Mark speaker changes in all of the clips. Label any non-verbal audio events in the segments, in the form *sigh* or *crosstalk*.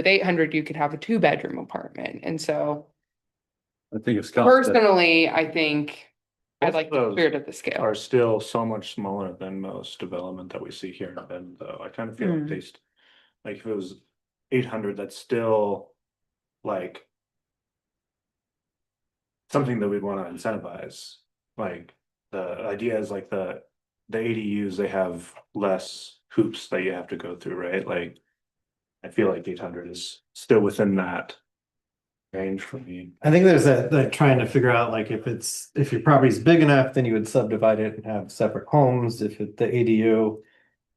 Speaker 1: With eight hundred, you could have a two bedroom apartment. And so
Speaker 2: I think it's.
Speaker 1: personally, I think I'd
Speaker 3: Both
Speaker 1: like to
Speaker 3: those
Speaker 1: clear to the scale.
Speaker 3: are still so much smaller than most development that we see here in Bend, though. I kind of feel
Speaker 1: Mm.
Speaker 3: like they st- like if it was eight hundred, that's still like something that we'd want to incentivize, like the idea is like the the ADUs, they have less hoops that you have to go through, right? Like I feel like eight hundred is still within that range for me.
Speaker 4: I think there's that, that trying to figure out like if it's, if your property's big enough, then you would subdivide it and have separate homes, if it, the ADU.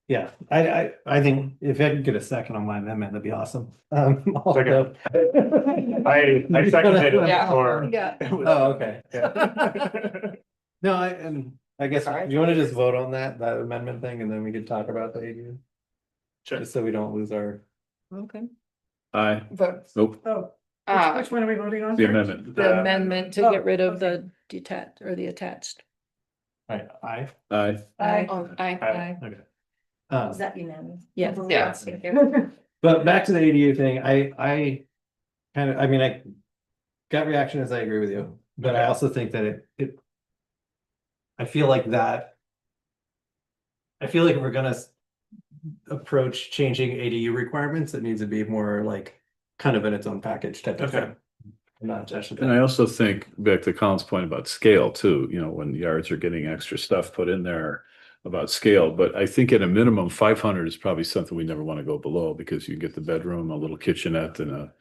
Speaker 4: Yeah, I, I, I think if I could get a second on my amendment, that'd be awesome. Um, *laughs* although-
Speaker 3: I I seconded
Speaker 1: *laughs*
Speaker 3: it
Speaker 1: Yeah.
Speaker 3: for.
Speaker 1: Yeah.
Speaker 4: Oh, okay.
Speaker 3: *laughs* Yeah.
Speaker 4: No, I, and I guess,
Speaker 1: Sorry.
Speaker 4: do you wanna just vote on that, that amendment thing, and then we could talk about the ADU?
Speaker 3: Sure.
Speaker 4: Just so we don't lose our.
Speaker 5: Okay.
Speaker 2: Aye,
Speaker 5: Vote.
Speaker 2: nope,
Speaker 5: Oh, which,
Speaker 1: Uh,
Speaker 5: which one are we voting on?
Speaker 2: the amendment,
Speaker 5: The
Speaker 3: The-
Speaker 5: amendment
Speaker 6: to get rid of the detached or the attached.
Speaker 4: Right, I.
Speaker 2: aye,
Speaker 6: Aye.
Speaker 1: oh, I,
Speaker 3: Aye.
Speaker 4: Okay. Um,
Speaker 6: that unanimous? Yes.
Speaker 1: Yeah.
Speaker 6: *laughs*
Speaker 4: But back to the ADU thing, I, I kind of, I mean, I gut reaction is I agree with you, but I also think that it, it. I feel like that. I feel like if we're gonna s- approach changing ADU requirements, it needs to be more like kind of in its own package type of
Speaker 3: Okay.
Speaker 4: thing. Not just.
Speaker 2: and I also think back to Colin's point about scale too, you know, when yards are getting extra stuff put in there. About scale, but I think at a minimum, five hundred is probably something we never want to go below because you get the bedroom, a little kitchenette and a.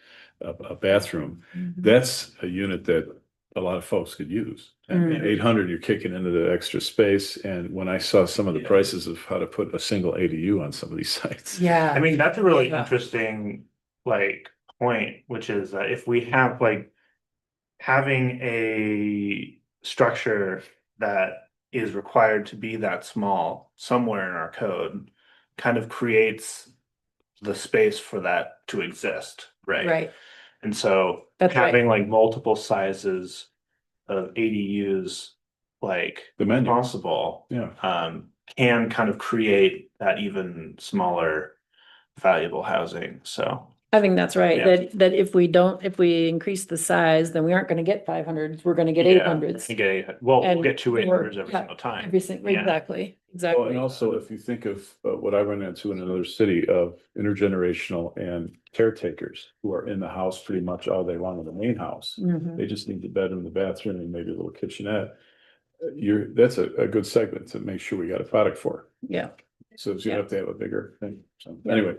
Speaker 2: A, a bathroom, that's a unit that a lot of folks could use. And eight hundred, you're kicking into the extra space, and when I saw some of the
Speaker 3: Yeah.
Speaker 2: prices of how to put a single ADU on some of these *laughs* sites.
Speaker 3: I
Speaker 1: yeah,
Speaker 3: mean, that's a really
Speaker 4: Yeah.
Speaker 3: interesting, like, point, which is that if we have like. Having a structure that is required to be that small somewhere in our code. Kind of creates the space for that to exist, right?
Speaker 6: Right,
Speaker 3: And so
Speaker 6: That's right.
Speaker 3: having like multiple sizes of ADUs, like
Speaker 2: The menu,
Speaker 3: possible.
Speaker 2: yeah.
Speaker 3: um, can kind of create that even smaller valuable housing, so.
Speaker 6: I think that's right,
Speaker 3: Yeah.
Speaker 6: that, that if we don't, if we increase the size, then we aren't gonna get five hundreds, we're gonna get
Speaker 3: Yeah,
Speaker 6: eight hundreds.
Speaker 3: You get, eight- well, we'll
Speaker 6: And
Speaker 3: get two eight hundreds
Speaker 6: we're-
Speaker 3: every
Speaker 6: yeah,
Speaker 3: single time.
Speaker 6: Every single,
Speaker 3: Yeah.
Speaker 6: exactly,
Speaker 2: Well, and
Speaker 6: exactly.
Speaker 2: also if you think of uh, what I run into in another city of intergenerational and caretakers who are in the house pretty much all day long in the main house.
Speaker 6: Mhm.
Speaker 2: They just need the bedroom, the bathroom, and maybe a little kitchenette. Uh, You're, that's a, a good segment to make sure we got a product for.
Speaker 6: Yeah,
Speaker 2: So you
Speaker 6: Yeah.
Speaker 2: have to have a bigger thing. So
Speaker 6: Yeah.
Speaker 2: anyway,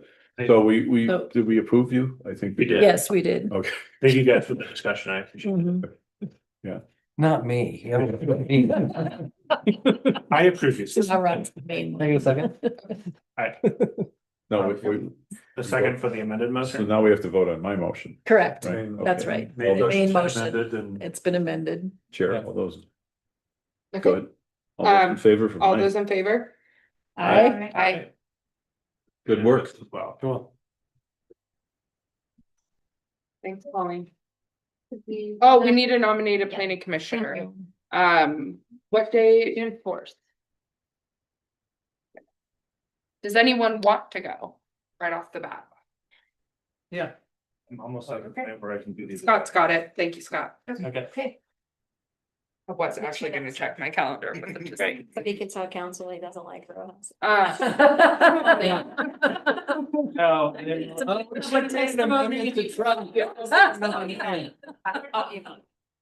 Speaker 2: so we, we,
Speaker 6: So-
Speaker 2: did we approve you? I think.
Speaker 3: We did. Yeah.
Speaker 6: yes, we did.
Speaker 2: Okay.
Speaker 3: Thank you guys for the discussion, I appreciate it.
Speaker 6: Mhm.
Speaker 4: Not me. *laughs* Can
Speaker 3: I approve you.
Speaker 6: All right. Main
Speaker 4: I
Speaker 6: one.
Speaker 4: get a second?
Speaker 2: No, we, we,
Speaker 3: The second for the amended
Speaker 2: so
Speaker 3: motion.
Speaker 2: now we have to vote on my motion,
Speaker 6: *laughs* Correct,
Speaker 2: right?
Speaker 6: that's
Speaker 2: Okay.
Speaker 6: right.
Speaker 2: All those-
Speaker 6: Main motion.
Speaker 3: Amended and-
Speaker 6: It's been amended.
Speaker 2: Chair, all those, go
Speaker 1: okay,
Speaker 2: ahead. All those in
Speaker 1: Um,
Speaker 2: favor for
Speaker 1: all
Speaker 2: mine.
Speaker 1: those in favor?
Speaker 2: Aye.
Speaker 1: Aye.
Speaker 2: Good work.
Speaker 3: As well.
Speaker 4: Cool.
Speaker 1: Thanks, Colleen. Oh, we need to nominate a planning commissioner. Um, what day in force? Does anyone want to go right off the bat?
Speaker 4: Yeah.
Speaker 3: I'm almost like a point where I can do these.
Speaker 1: Scott's got it. Thank you, Scott.
Speaker 4: Okay.
Speaker 7: Okay,
Speaker 1: I was actually gonna check my calendar. but it just-
Speaker 7: but he can tell council he doesn't like her.
Speaker 6: *laughs*
Speaker 1: Uh, *laughs*
Speaker 4: No.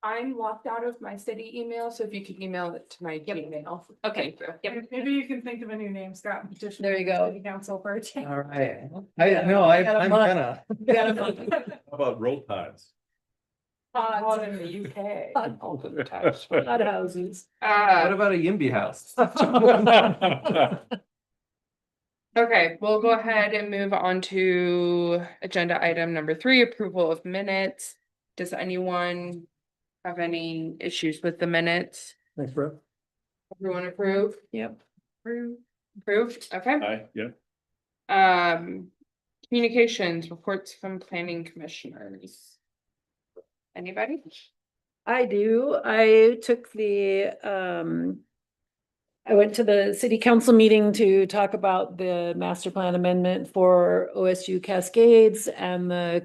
Speaker 1: I'm locked out of my city email, so if you could email it to my Gmail.
Speaker 6: Okay.
Speaker 1: Thank you.
Speaker 7: Maybe you can think of a new name, Scott. petition
Speaker 6: There you go.
Speaker 7: city Council for a
Speaker 6: *laughs*
Speaker 7: change.
Speaker 4: All right. I, no, I, I'm gonna.
Speaker 2: How about roll tides?
Speaker 7: Odd in the
Speaker 6: *laughs*
Speaker 7: UK.
Speaker 6: Lot
Speaker 2: *laughs*
Speaker 6: of houses.
Speaker 4: What
Speaker 1: Uh,
Speaker 4: about a Yimby house? *laughs*
Speaker 1: okay, we'll go ahead and move on to agenda item number three, approval of minutes. Does anyone have any issues with the minutes?
Speaker 6: Thanks, bro.
Speaker 1: Everyone approve?
Speaker 6: Yep.
Speaker 1: Approved. Approved, okay.
Speaker 2: Aye, yeah.
Speaker 1: Um, communications, reports from planning commissioners. Anybody?
Speaker 6: I do. I took the um I went to the city council meeting to talk about the master plan amendment for OSU Cascades and the